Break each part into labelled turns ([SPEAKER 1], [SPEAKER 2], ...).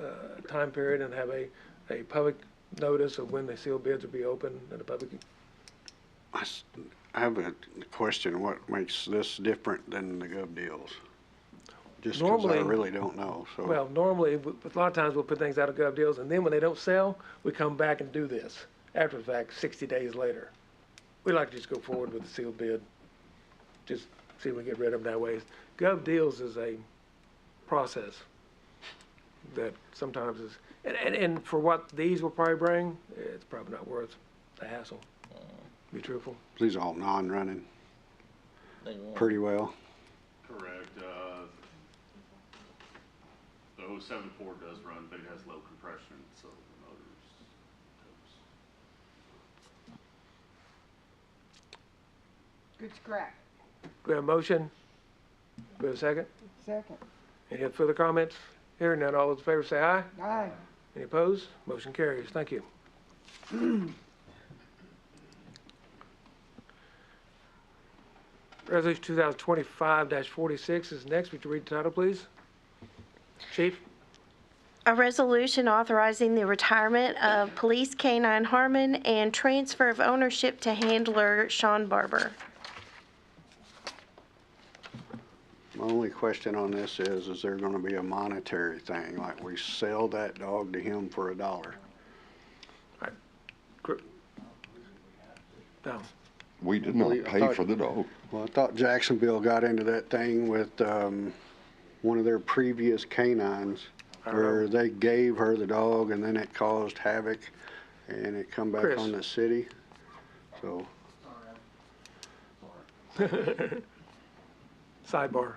[SPEAKER 1] uh, time period and have a, a public notice of when the sealed bids will be open and the public,
[SPEAKER 2] I s- I have a question, what makes this different than the gov deals? Just 'cause I
[SPEAKER 1] Normally-
[SPEAKER 2] really don't know, so.
[SPEAKER 1] well, normally, w- a lot of times we'll put things out of gov deals and then when they don't sell, we come back and do this after the fact, sixty days later. We like to just go forward with the sealed bid, just see if we get rid of them that way. Gov deals is a process that sometimes is, and, and, and for what these will probably bring, it's probably not worth the hassle, to be truthful.
[SPEAKER 2] These are all non-running
[SPEAKER 3] They won't.
[SPEAKER 2] pretty well.
[SPEAKER 4] Correct. uh, The 074 does run, but it has low compression, so the motors. totes.
[SPEAKER 5] Good scrap.
[SPEAKER 1] We have a motion? We have a second?
[SPEAKER 5] Second.
[SPEAKER 1] Any further comments? Hearing none, all those in favor say aye.
[SPEAKER 5] Aye.
[SPEAKER 1] Any opposed? Motion carries. Thank you. Resolution two thousand twenty-five forty-six is next. Would you read the title, please? Chief?
[SPEAKER 6] A resolution authorizing the retirement of Police K-9 Harmon and transfer of ownership to handler Sean Barber.
[SPEAKER 2] My only question on this is, is there gonna be a monetary thing, like we sell that dog to him for a dollar?
[SPEAKER 1] No.
[SPEAKER 7] We did not
[SPEAKER 2] Well, I
[SPEAKER 7] pay
[SPEAKER 2] thought-
[SPEAKER 7] for the dog.
[SPEAKER 2] Well, I thought Jacksonville got into that thing with, um, one of their previous canines,
[SPEAKER 1] I don't know.
[SPEAKER 2] where they gave her the dog and then it caused havoc, and it come back
[SPEAKER 1] Chris.
[SPEAKER 2] on the city, so.
[SPEAKER 1] Sidebar.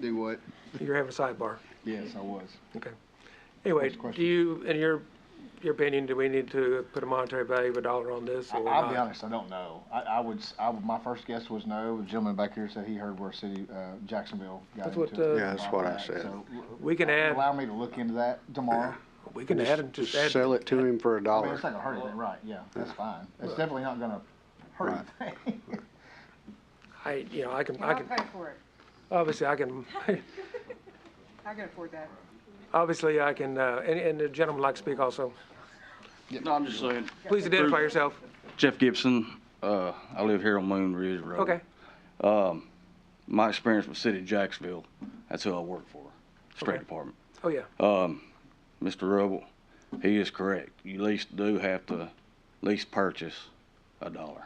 [SPEAKER 7] Do what?
[SPEAKER 1] You're having a sidebar.
[SPEAKER 7] Yes, I was.
[SPEAKER 1] Anyway,
[SPEAKER 7] Next question.
[SPEAKER 1] do you, in your, your opinion, do we need to put a monetary value of a dollar on this
[SPEAKER 8] I-
[SPEAKER 1] or
[SPEAKER 8] I'll be
[SPEAKER 1] not?
[SPEAKER 8] honest, I don't know. I, I would, s- I would- my first guess was no. The gentleman back here said he heard where city, uh, Jacksonville got
[SPEAKER 1] That's what,
[SPEAKER 8] into it.
[SPEAKER 1] uh,
[SPEAKER 2] Yeah, that's what I said.
[SPEAKER 8] So, w-
[SPEAKER 1] We can add-
[SPEAKER 8] Allow me to look into that tomorrow.
[SPEAKER 1] We can add and just add.
[SPEAKER 2] Sell it to him for a
[SPEAKER 8] I mean,
[SPEAKER 2] dollar.
[SPEAKER 8] it's not gonna hurt anything, right, yeah, that's fine. It's definitely not gonna hurt anything.
[SPEAKER 1] I, you know, I can,
[SPEAKER 5] And
[SPEAKER 1] I
[SPEAKER 5] I'll
[SPEAKER 1] can,
[SPEAKER 5] pay for it.
[SPEAKER 1] obviously I can,
[SPEAKER 5] I can afford that.
[SPEAKER 1] obviously I can, uh, and, and the gentleman would like to speak also.
[SPEAKER 9] No, I'm just saying,
[SPEAKER 1] Please identify yourself.
[SPEAKER 9] Jeff Gibson, uh, I live here on Moon Ridge Road.
[SPEAKER 1] Okay,
[SPEAKER 9] My experience with City of Jacksonville, that's who I work for, State
[SPEAKER 1] Okay.
[SPEAKER 9] Department.
[SPEAKER 1] oh yeah,
[SPEAKER 9] Mr. Rubble, he is correct. You at least do have to at least purchase a dollar.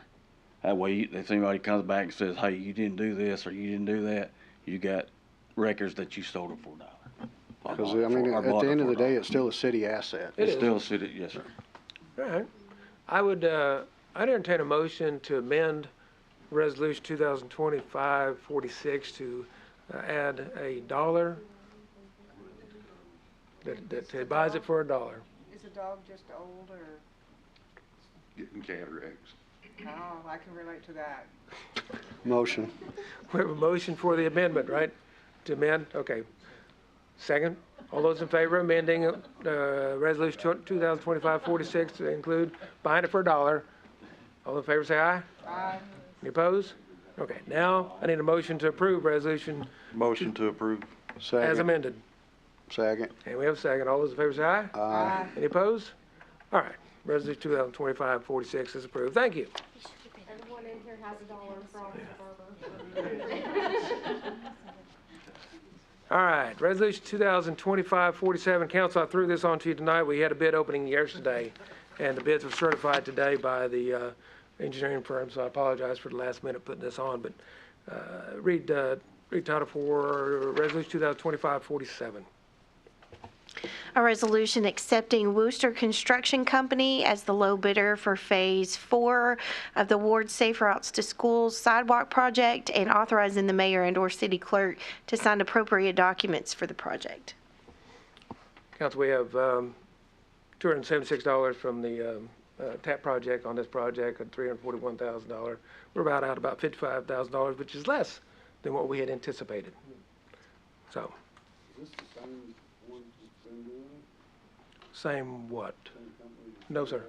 [SPEAKER 9] That way, you- if anybody comes back and says, hey, you didn't do this or you didn't do that, you got records that you sold it for a dollar. Or
[SPEAKER 2] Because,
[SPEAKER 9] bought it
[SPEAKER 2] I mean,
[SPEAKER 9] for- or
[SPEAKER 2] at
[SPEAKER 9] bought
[SPEAKER 2] the
[SPEAKER 9] it
[SPEAKER 2] end of
[SPEAKER 9] for
[SPEAKER 2] the
[SPEAKER 9] a
[SPEAKER 2] day,
[SPEAKER 9] dollar.
[SPEAKER 2] it's still a city asset.
[SPEAKER 1] It
[SPEAKER 9] It's
[SPEAKER 1] is.
[SPEAKER 9] still city, yes, sir.
[SPEAKER 1] all right. I would, uh, I'd entertain a motion to amend Resolution 2025-46 to uh, add a dollar that, that he buys it for a dollar.
[SPEAKER 5] Is the dog just old or,
[SPEAKER 7] Getting cataracts.
[SPEAKER 5] oh, I can relate to that.
[SPEAKER 2] Motion.
[SPEAKER 1] We have a motion for the amendment, right? To amend, okay. Second, all those in favor of amending, uh, resolution tw- 2025-46 to include buying it for a dollar. All in favor say aye.
[SPEAKER 5] Aye.
[SPEAKER 1] Any opposed? Okay, now I need a motion to approve resolution
[SPEAKER 7] Motion to approve.
[SPEAKER 1] as
[SPEAKER 2] Second.
[SPEAKER 1] amended.
[SPEAKER 2] Second.
[SPEAKER 1] And we have a second. All those in favor say aye.
[SPEAKER 5] Aye.
[SPEAKER 1] Any opposed? All right, resolution 2025-46 is approved. Thank you. All right, resolution 2025-47. council, I threw this on to you tonight. We had a bid opening yesterday, and the bids were certified today by the, uh, engineering firm, so I apologize for the last minute putting this on, but, uh, read, uh, read title for resolution 2025-47.
[SPEAKER 6] A resolution accepting Wooster Construction Company as the low bidder for Phase 4 of the Ward Safe Routes to Schools sidewalk project and authorizing the mayor and/or city clerk to sign appropriate documents for the project.
[SPEAKER 1] Council, we have um, $276 from the um, uh, TAP project on this project, and $341,000. We're about out about $55,000, which is less than what we had anticipated. So, same what? No, sir.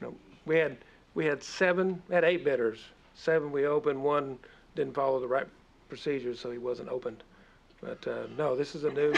[SPEAKER 1] No, we had, we had seven, we had eight bidders. Seven we opened, one didn't follow the right procedures, so he wasn't opened. But uh, no, this is a new,